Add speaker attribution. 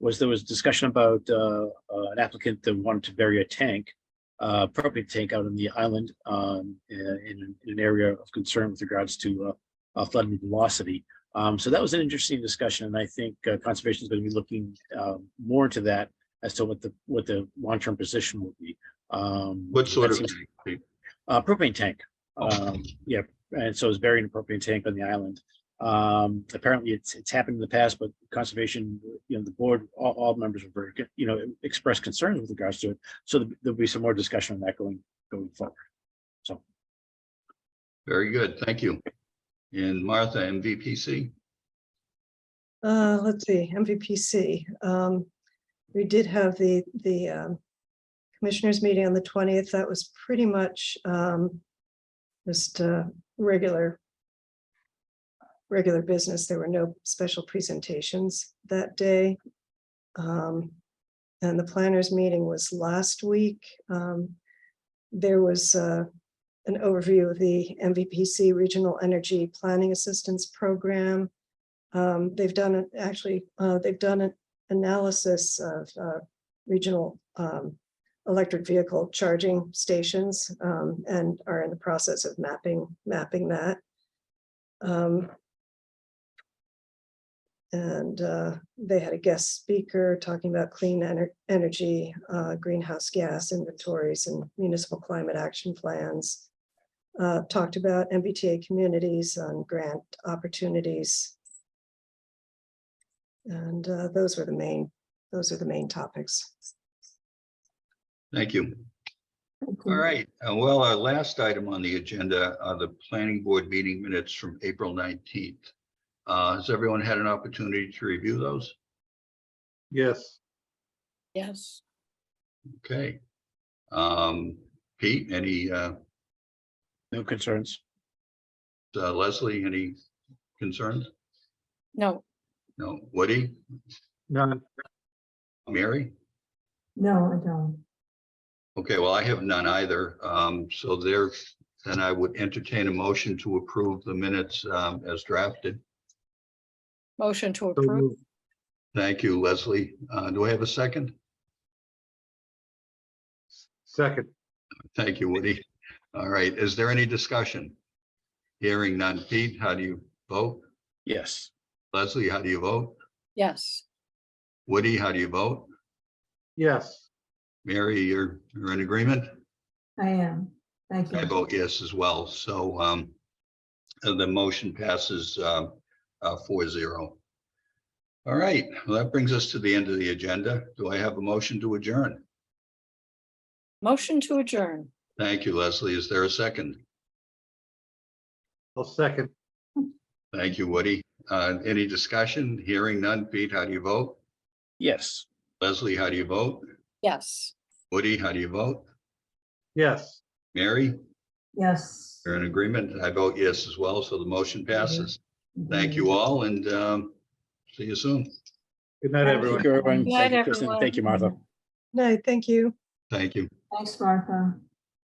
Speaker 1: was there was discussion about uh, uh, an applicant that wanted to bury a tank, uh, propane tank out on the island um, in, in an area of concern with regards to uh, uh, flood and velocity. Um, so that was an interesting discussion, and I think uh, conservation is going to be looking uh, more into that as to what the what the long term position will be. Um,
Speaker 2: What sort
Speaker 1: that
Speaker 2: of,
Speaker 1: seems- uh, propane tank. Um, yeah, and so it's buried in a propane tank on the island. Um, apparently it's, it's happened in the past, but conservation, you know, the board, all, all members were very, you know, expressed concerns with regards to it. So there'll be some more discussion on that going, going forward.
Speaker 2: very good, thank you. And Martha, MVPC,
Speaker 3: Uh, let's see, MVPC. Um, we did have the, the, um, commissioners meeting on the twentieth. That was pretty much, um, just, uh, regular, regular business. There were no special presentations that day. Um, and the planners meeting was last week. Um, there was, uh, an overview of the MVPC Regional Energy Planning Assistance Program. Um, they've done it, actually, uh, they've done an analysis of, uh, regional, um, electric vehicle charging stations, um, and are in the process of mapping, mapping that. Um, and, uh, they had a guest speaker talking about clean ener- energy, uh, greenhouse gas inventories and municipal climate action plans. Uh, talked about MBTA communities on grant opportunities, and uh, those were the main, those are the main topics.
Speaker 2: thank you. All right, uh, well, our last item on the agenda are the planning board meeting minutes from April nineteenth. Uh, has everyone had an opportunity to review those?
Speaker 4: Yes,
Speaker 5: Yes,
Speaker 2: Okay. Um, Pete, any, uh,
Speaker 1: No concerns.
Speaker 2: uh, Leslie, any concerns?
Speaker 5: no,
Speaker 2: No, Woody,
Speaker 4: none,
Speaker 2: Mary?
Speaker 6: No, I don't.
Speaker 2: Okay, well, I have none either. Um, so there, then I would entertain a motion to approve the minutes, um, as drafted.
Speaker 5: motion to
Speaker 4: so
Speaker 5: approve,
Speaker 4: moved.
Speaker 2: Thank you, Leslie. Uh, do I have a second?
Speaker 4: second,
Speaker 2: Thank you, Woody. All right, is there any discussion? Hearing none. Pete, how do you vote?
Speaker 1: Yes.
Speaker 2: Leslie, how do you vote?
Speaker 5: yes,
Speaker 2: Woody, how do you vote?
Speaker 4: yes,
Speaker 2: Mary, you're, you're in agreement?
Speaker 6: I am. Thank
Speaker 2: I
Speaker 6: you.
Speaker 2: vote yes as well. So, um, uh, the motion passes, um, uh, four zero. All right, well, that brings us to the end of the agenda. Do I have a motion to adjourn?
Speaker 5: motion to adjourn,
Speaker 2: Thank you, Leslie. Is there a second?
Speaker 4: I'll second,
Speaker 2: Thank you, Woody. Uh, any discussion? Hearing none. Pete, how do you vote?
Speaker 1: Yes.
Speaker 2: Leslie, how do you vote?
Speaker 5: yes.
Speaker 2: Woody, how do you vote?
Speaker 4: yes.
Speaker 2: Mary,
Speaker 6: Yes.
Speaker 2: you're in agreement. I vote yes as well, so the motion passes. Thank you all and um, see you soon.
Speaker 4: Good night,
Speaker 6: Thank
Speaker 4: everyone.
Speaker 1: Thank you, everyone.
Speaker 5: Good
Speaker 1: Thank you,
Speaker 5: night,
Speaker 1: Kristen.
Speaker 5: everyone.
Speaker 1: Thank you, Martha.
Speaker 3: No, thank you.
Speaker 2: Thank you.
Speaker 6: Thanks, Martha.